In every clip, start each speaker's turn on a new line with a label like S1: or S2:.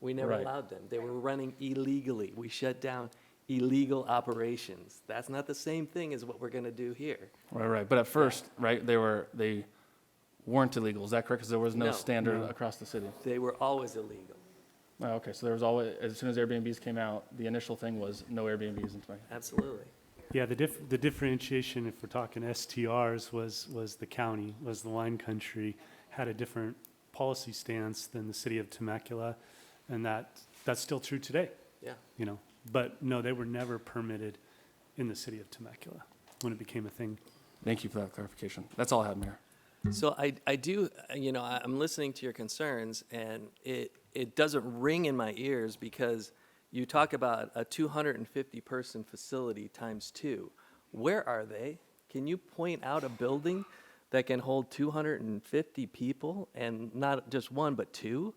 S1: We never
S2: Right.
S1: allowed them. They were running illegally. We shut down illegal operations. That's not the same thing as what we're going to do here.
S2: Right, right. But at first, right, they were, they weren't illegal. Is that correct? Because there was no
S1: No.
S2: standard across the city.
S1: They were always illegal.
S2: Oh, okay, so there was always, as soon as Airbnbs came out, the initial thing was no Airbnbs in Temecula.
S1: Absolutely.
S3: Yeah, the diff, the differentiation, if we're talking STRs, was, was the county, was the wine country, had a different policy stance than the city of Temecula, and that, that's still true today,
S1: Yeah.
S3: you know? But no, they were never permitted in the city of Temecula when it became a thing.
S2: Thank you for that clarification. That's all I have, Mayor.
S1: So I, I do, uh, you know, I- I'm listening to your concerns, and it, it doesn't ring in my ears because you talk about a 250-person facility times two. Where are they? Can you point out a building that can hold 250 people and not just one, but two?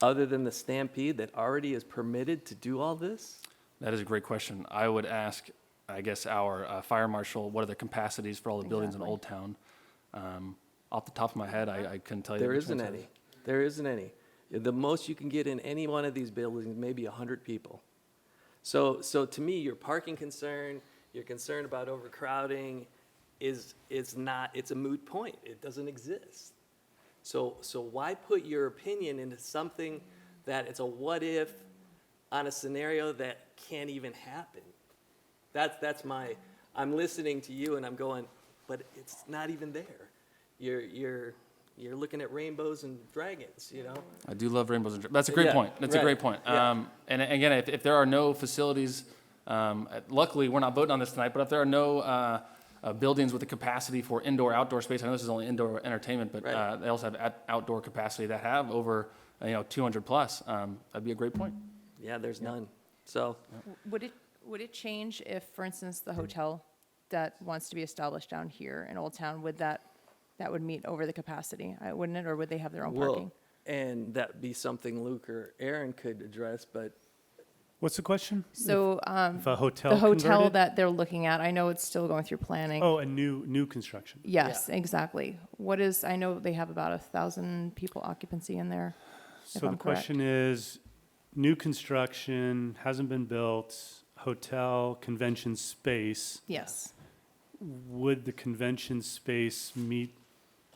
S1: Other than the Stampede that already is permitted to do all this?
S2: That is a great question. I would ask, I guess, our uh, fire marshal, what are the capacities for all the buildings in Old Town? Um, Off the top of my head, I I couldn't tell you.
S1: There
S2: which
S1: isn't
S2: ones have-
S1: any. There isn't any. The most you can get in any one of these buildings, maybe 100 people. So, so to me, your parking concern, your concern about overcrowding is, is not, it's a moot point. It doesn't exist. So, so why put your opinion into something that it's a what if on a scenario that can't even happen? That's, that's my, I'm listening to you and I'm going, but it's not even there. You're, you're, you're looking at rainbows and dragons, you know?
S2: I do love rainbows and dra- that's a great
S1: Yeah,
S2: point. That's a
S1: right,
S2: great point.
S1: yeah.
S2: Um, and again, if, if there are no facilities, um, uh, luckily we're not voting on this tonight. But if there are no uh, uh, buildings with the capacity for indoor outdoor space, I know this is only indoor entertainment, but
S1: Right.
S2: uh, they also have at- outdoor capacity that have over uh, you know 200 plus. Um, that'd be a great point.
S1: Yeah, there's none. So,
S4: Would it, would it change if, for instance, the hotel that wants to be established down here in Old Town, would that, that would meet over the capacity, uh, wouldn't it, or would they have their own
S1: well,
S4: parking?
S1: and that'd be something Luke or Aaron could address, but
S3: What's the question?
S4: So, um,
S3: If a hotel
S4: the hotel
S3: converted?
S4: that they're looking at, I know it's still going through planning.
S3: Oh, a new, new construction.
S4: Yes, exactly. What is, I know they have about a thousand people occupancy in there. if
S3: So the
S4: I'm correct.
S3: question is, new construction, hasn't been built, hotel, convention space,
S4: Yes.
S3: would the convention space meet,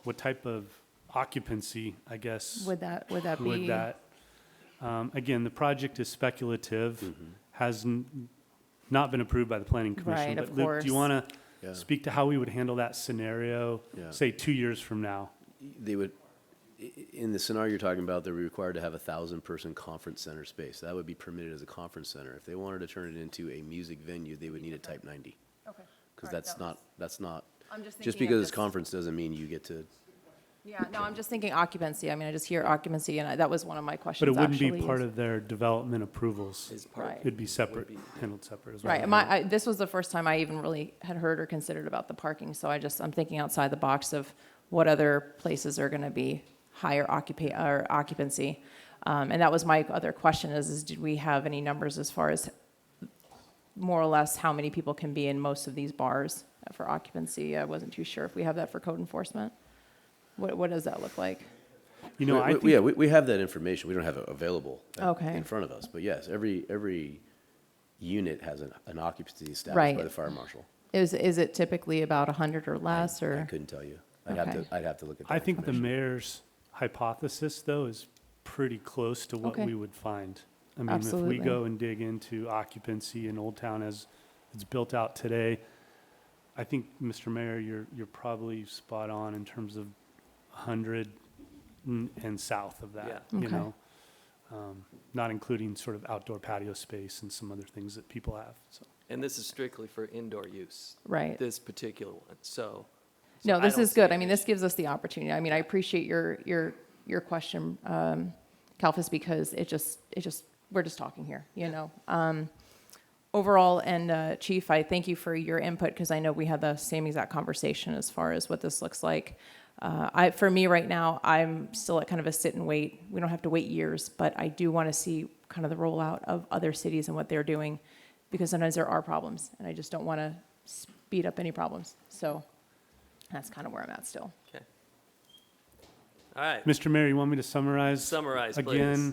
S3: what type of occupancy, I guess?
S4: Would that, would that be?
S3: would that? Um, Again, the project is speculative,
S5: Mm-hmm.
S3: has n- not been approved by the planning commission.
S4: Right, of
S3: But Luke, Do you
S4: course.
S3: want
S5: Yeah.
S3: to speak to how we would handle that scenario,
S5: Yeah.
S3: say, two years from now?
S5: They would, i- i- in the scenario you're talking about, they're required to have a thousand-person conference center space. That would be permitted as a conference center. If they wanted to turn it into a music venue, they would need a type ninety.
S4: Okay.
S5: Because that's not, that's not,
S4: I'm just
S5: just
S4: thinking of
S5: because it's
S4: this-
S5: conference doesn't mean you get to,
S4: Yeah, no, I'm just thinking occupancy. I mean, I just hear occupancy, and I- that was one of my
S3: But
S4: questions,
S3: it wouldn't
S4: actually.
S3: be part
S4: is-
S3: of their development approvals.
S1: his part.
S4: Right.
S3: It'd be separate, handled separate as well.
S4: Right. My, I, this was the first time I even really had heard or considered about the parking. So I just, I'm thinking outside the box of what other places are going to be higher occupa- or occupancy. Um, and that was my other question is, is did we have any numbers as far as more or less how many people can be in most of these bars for occupancy? I wasn't too sure if we have that for code enforcement. What, what does that look like?
S3: You know, I
S5: We-
S3: think.
S5: we- yeah, we, we have that information. We don't have it available at-
S4: Okay.
S5: in front of us. But yes, every, every unit has an an occupancy established
S4: Right.
S5: by the fire marshal.
S4: Is, is it typically about 100 or less or?
S5: I couldn't tell you. I'd have to,
S4: Okay.
S5: I'd have to look at that
S3: I think the
S5: information.
S3: mayor's hypothesis, though, is pretty close to what
S4: Okay.
S3: we would find. I mean, if we
S4: Absolutely.
S3: go and dig into occupancy in Old Town as it's built out today, I think, Mr. Mayor, you're, you're probably spot on in terms of 100 n- and south of that,
S4: Yeah.
S3: you
S4: Okay.
S3: know? Um, Not including sort of outdoor patio space and some other things that people have, so.
S1: And this is strictly for indoor use,
S4: Right.
S1: this particular one, so. so
S4: No,
S1: I
S4: this
S1: don't
S4: is
S1: see
S4: good.
S1: an
S4: I mean, this gives us the opportunity. I mean, I appreciate your, your, your question, um, Kalfas, because it just, it just, we're just talking here, you know? Um, overall, and, uh, Chief, I thank you for your input, because I know we had the same exact conversation as far as what this looks like. Uh, I, for me right now, I'm still at kind of a sit and wait. We don't have to wait years, but I do want to see kind of the rollout of other cities and what they're doing, because sometimes there are problems, and I just don't want to speed up any problems, so. That's kind of where I'm at still.
S1: issue. Okay. All right,
S3: Mr. Mayor, you want me to summarize?
S1: Summarize, please.
S3: Again,